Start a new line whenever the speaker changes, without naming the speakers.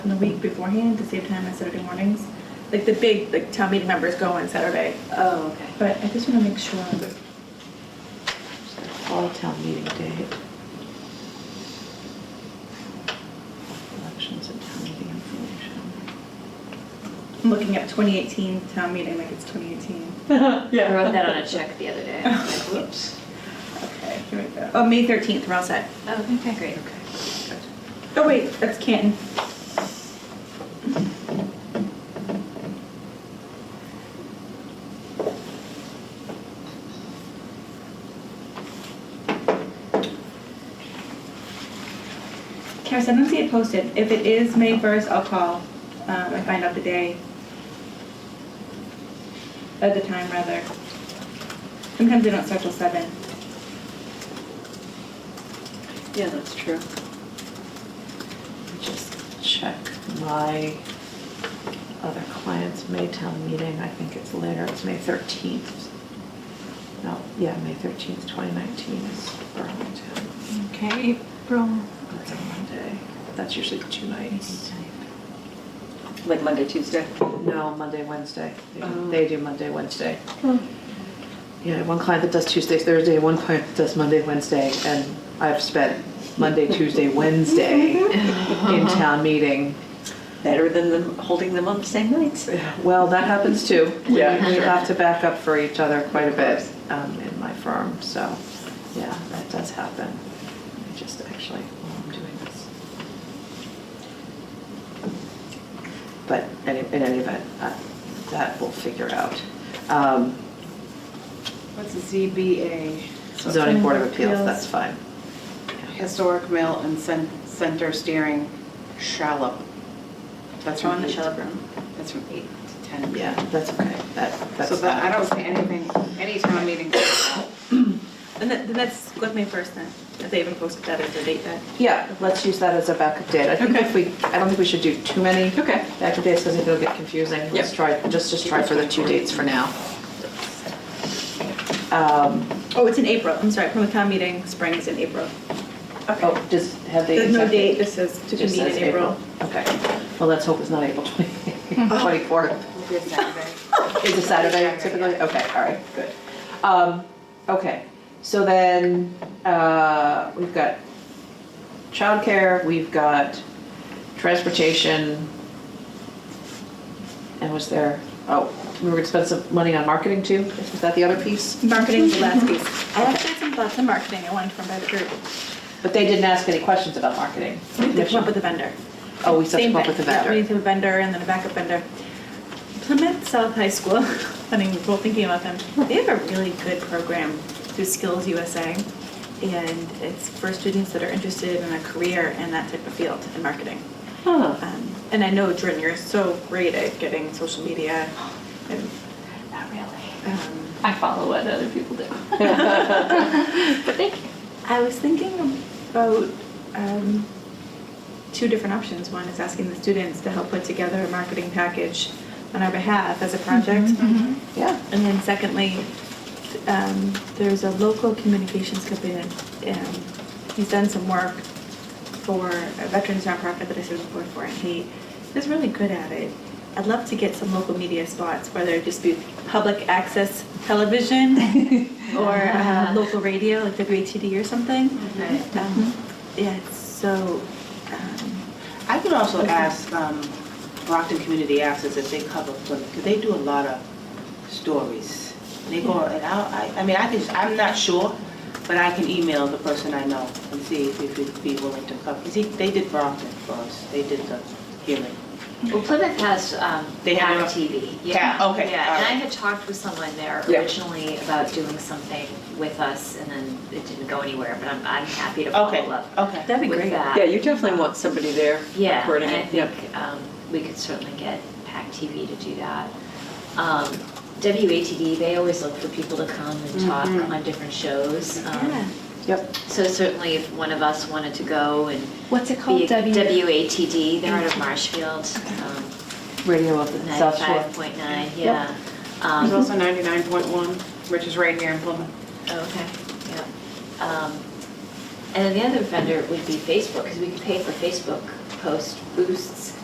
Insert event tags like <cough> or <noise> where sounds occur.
the week beforehand to save time on Saturday mornings. Like the big, like town meeting members go on Saturday,
Oh, okay.
but I just wanna make sure.
Fall town meeting day. Elections and town meeting information.
I'm looking at twenty eighteen town meeting, like it's twenty eighteen.
Yeah.
I wrote that on a check the other day. I was like, Whoops.
Okay, here we go. Oh, May thirteenth, we're all set.
Oh, okay, great.
Oh, wait, that's Canton. Karis, I don't see it posted. If it is May first, I'll call, um, and find out the day. At the time, rather. Sometimes they don't start till seven.
Yeah, that's true. Just check my other client's May town meeting, I think it's later, it's May thirteenth. No, yeah, May thirteenth, twenty nineteen is Burlington.
Okay, April.
That's on Monday. That's usually two nights.
Like Monday, Tuesday.
No, Monday, Wednesday. They do-
Oh.
They do Monday, Wednesday. Yeah, one client that does Tuesday, Thursday, one client that does Monday, Wednesday, and I've spent Monday, Tuesday, Wednesday in town meeting.
Better than them, holding them on the same nights.
Well, that happens too. We-
Yeah.
We have to back up for each other quite a bit um, in my firm, so, yeah, that does happen. I just actually, while I'm doing this. But any- in any event, uh, that we'll figure out. Um,
What's the ZBA?
Zoning Board of Appeals, that's fine.
Historic Mill and Cen- Center Steering Shallop. That's
Throw
from
in the
eight.
shell room.
That's from eight to ten.
Yeah, that's okay. That, that's.
So that, I don't see anything, any town meeting.
And that, then that's with me first then, if they even posted that as a date then.
Yeah, let's use that as a backup date. I think if we, I don't think we should do too many.
Okay.
Backup dates, because I think it'll get confusing. Let's try, just, just try for the two dates for now. Um,
Oh, it's in April, I'm sorry, Plymouth Town Meeting, spring is in April.
Oh, does, have they?
There's no
accepted?
date, this says to
It
be
just
meet in
says
April. Oh.
Okay, well, let's hope it's not April <laughs> 24th.
Good Saturday.
Is it Saturday
Saturday,
typically?
yeah.
Okay, all right, good. Um, okay, so then, uh, we've got childcare, we've got transportation. And was there, oh, we were gonna spend some money on marketing too? Is that the other piece?
Marketing's the last piece. I actually had some thoughts on marketing, I wanted to run by the group.
But they didn't ask any questions about marketing.
We have to come up with a vendor.
Oh, we still have
Same
to come up with a
thing. Yeah, We need
vendor.
to have a vendor and then a backup vendor. Plymouth South High School, <laughs> funny, we're both thinking about them, they have a really good program through Skills USA. And it's for students that are interested in a career in that type of field in marketing.
Huh,
Um, and I know, Jordan, you're so great at getting social media. And,
Not really.
um,
I follow what other people
<laughs>
do. But thank you.
I was thinking about um, two different options. One is asking the students to help put together a marketing package on our behalf as a project.
yeah,
And then secondly, um, there's a local communications company that, um, he's done some work for a veterans nonprofit that I serve on the board for, and he is really good at it. I'd love to get some local media spots, whether it just be public access television or uh, local radio, like WATD or something. Um, Yeah, so, um,
I could also ask, um, Brockton Community Access if they cover Plymouth, because they do a lot of stories. They go, and I, I- I mean, I can, I'm not sure, but I can email the person I know and see if he'd be willing to cover. Because he, they did Brockton for us, they did the hearing.
Well, Plymouth has um,
They have
Now
it on-
TV.
Yeah, okay,
Yeah,
all
and I
right.
had talked with someone there
Yeah.
originally about doing something with us, and then it didn't go anywhere, but I'm, I'm happy to
Okay,
follow up
okay.
that'd be
with
great.
that.
Yeah, you definitely want somebody there.
Yeah,
recording
and I
it. Yep.
think um, we could certainly get PAC TV to do that. Um, WATD, they always look for people to come and talk
Mm-hmm.
on different shows. um,
Yeah.
yep.
So certainly if one of us wanted to go and
What's it
be
called?
WATD, they're out of Marshfield, um,
Radio of the South Shore.
95.9, yeah. Um,
There's also 99.1, which is right here in Plymouth.
oh, Okay, yeah. Um, And then the other vendor would be Facebook, because we could pay for Facebook post boosts